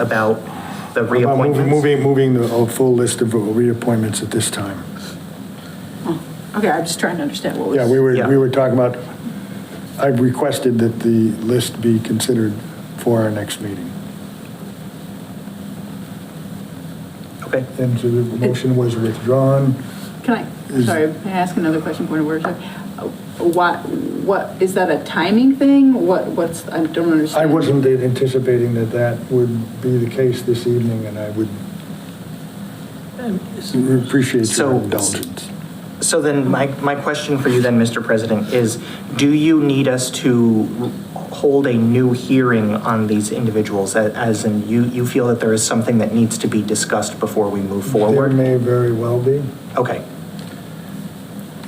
about the About moving- reappointments. Moving, moving the a full list of reappointments at this time. Okay, I'm just trying to understand what was. Yeah, we were, Yeah. we were talking about, I requested that the list be considered for our next meeting. Okay. And so the motion was withdrawn. Can I, Is- sorry, can I ask another question, point of order? Uh, What, what, is that a timing thing? What, what's, I don't I understand. wasn't anticipating that that would be the case this evening, and I would appreciate your So- indulgence. So then, my, my question for you then, Mr. President, is do you need us to hold a new hearing on these individuals? A- As in, you, you feel that there is something that needs to be discussed before we move There forward? may very well be, Okay,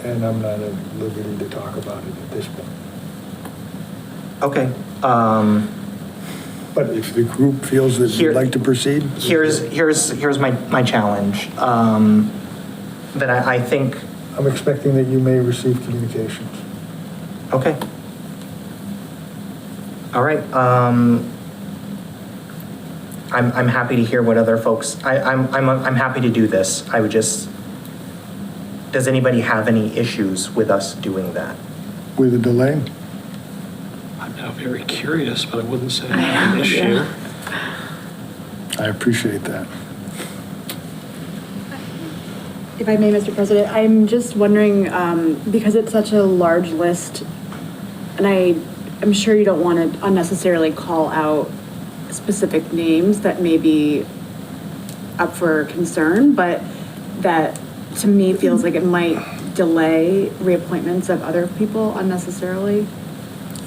and I'm not at liberty to talk about it at this point. okay. Um, But if the group feels that Here- you'd like to proceed? Here's, here's, here's my, my challenge, um, that I, I think, I'm expecting that you may receive communications. okay. All right, um, I'm, I'm happy to hear what other folks, I, I'm, I'm, I'm happy to do this. I would just, does anybody have any issues with us doing that? With a delay? I'm now very curious, but I wouldn't say I I have an know, issue. yeah. I appreciate that. If I may, Mr. President, I'm just wondering, um, because it's such a large list, and I, I'm sure you don't want to unnecessarily call out specific names that may be up for concern, but that to me feels like it might delay reappointments of other people unnecessarily.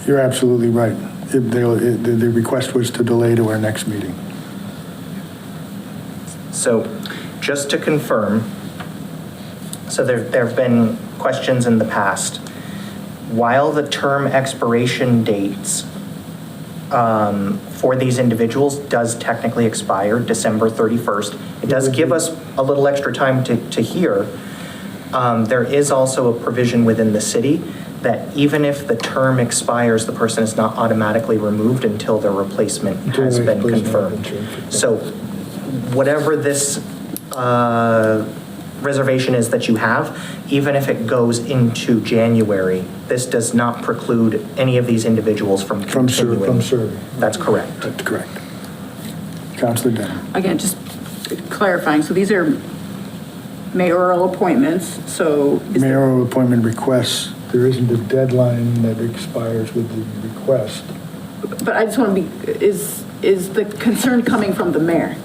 You're absolutely right. If they- if The the request was to delay to our next meeting. So, just to confirm, so there, there have been questions in the past. While the term expiration dates um, for these individuals does technically expire December 31st, it does Mm-hmm. give us a little extra time to, to hear. Um, There is also a provision within the city that even if the term expires, the person is not automatically removed until their replacement Until has their been replacement has been confirmed. confirmed. So whatever this uh, reservation is that you have, even if it goes into January, this does not preclude any of these individuals from From ser- continuing. from serving. That's correct. That's correct. Counselor Denham. Again, just clarifying, so these are mayoral appointments, so. is there- Mayoral appointment requests, there isn't a deadline that expires with the request. But I just want to be, is, is the concern coming from the mayor?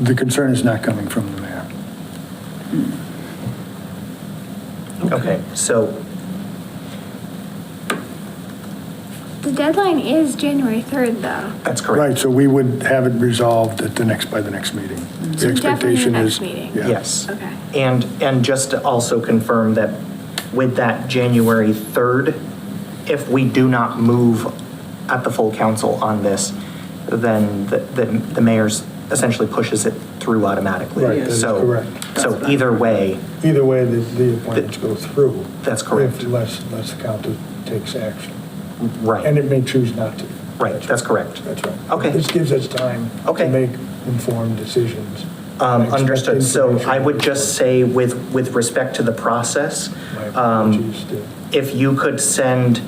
The concern is not coming from the mayor. Hmm. Okay, so, The deadline is January 3rd, though. that's correct. Right, so we would have it resolved at the next, by the next meeting. The So Mm-hmm. definitely the expectation next is- meeting. yeah. Yes. Okay. And, and just to also confirm that with that January 3rd, if we do not move at the full council on this, then the, the- the mayor's essentially pushes it through automatically. Right, that is So- correct. So either way, Either way, the, the appointments go through. That's correct. If- Unless, unless the county takes action. And right, it may choose not to. right, that's correct. That's right. Okay. This gives us time to Okay. make informed decisions. I Um, expect Understood. So I would information- just say with, with respect to the process, My um, apologies to- if you could send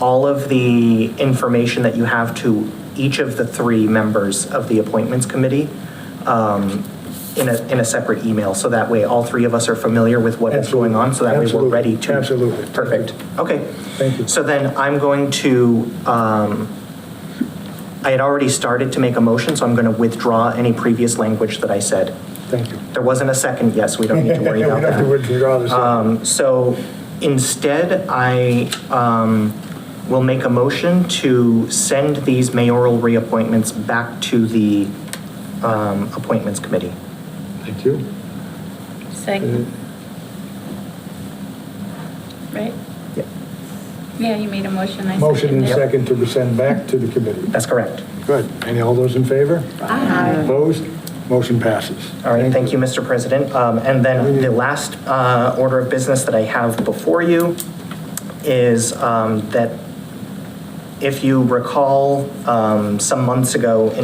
all of the information that you have to each of the three members of the appointments committee um, in a, in a separate email, so that way all three of us are familiar with what is going on, so that way we're Absolutely. ready to. Absolutely. Perfect. Okay. Thank you. So then I'm going to, um, I had already started to make a motion, so I'm going to withdraw any previous language that I said. Thank you. There wasn't a second yes, we don't need to worry We about don't that. have to withdraw the second. Um, So instead, I um, will make a motion to send these mayoral reappointments back to the um, Appointments Committee. Thank you. Second, Uh, right? Yeah, you made a motion, I Uh, seconded. Mm-hmm. Motion and it. second to send back to the committee. That's correct. Good. Any, all those in favor? Aye. Opposed? Motion passes. All right, thank you, Mr. President. Um, And then the last uh, order of business that I have before you is um, that if you recall, um, some months ago,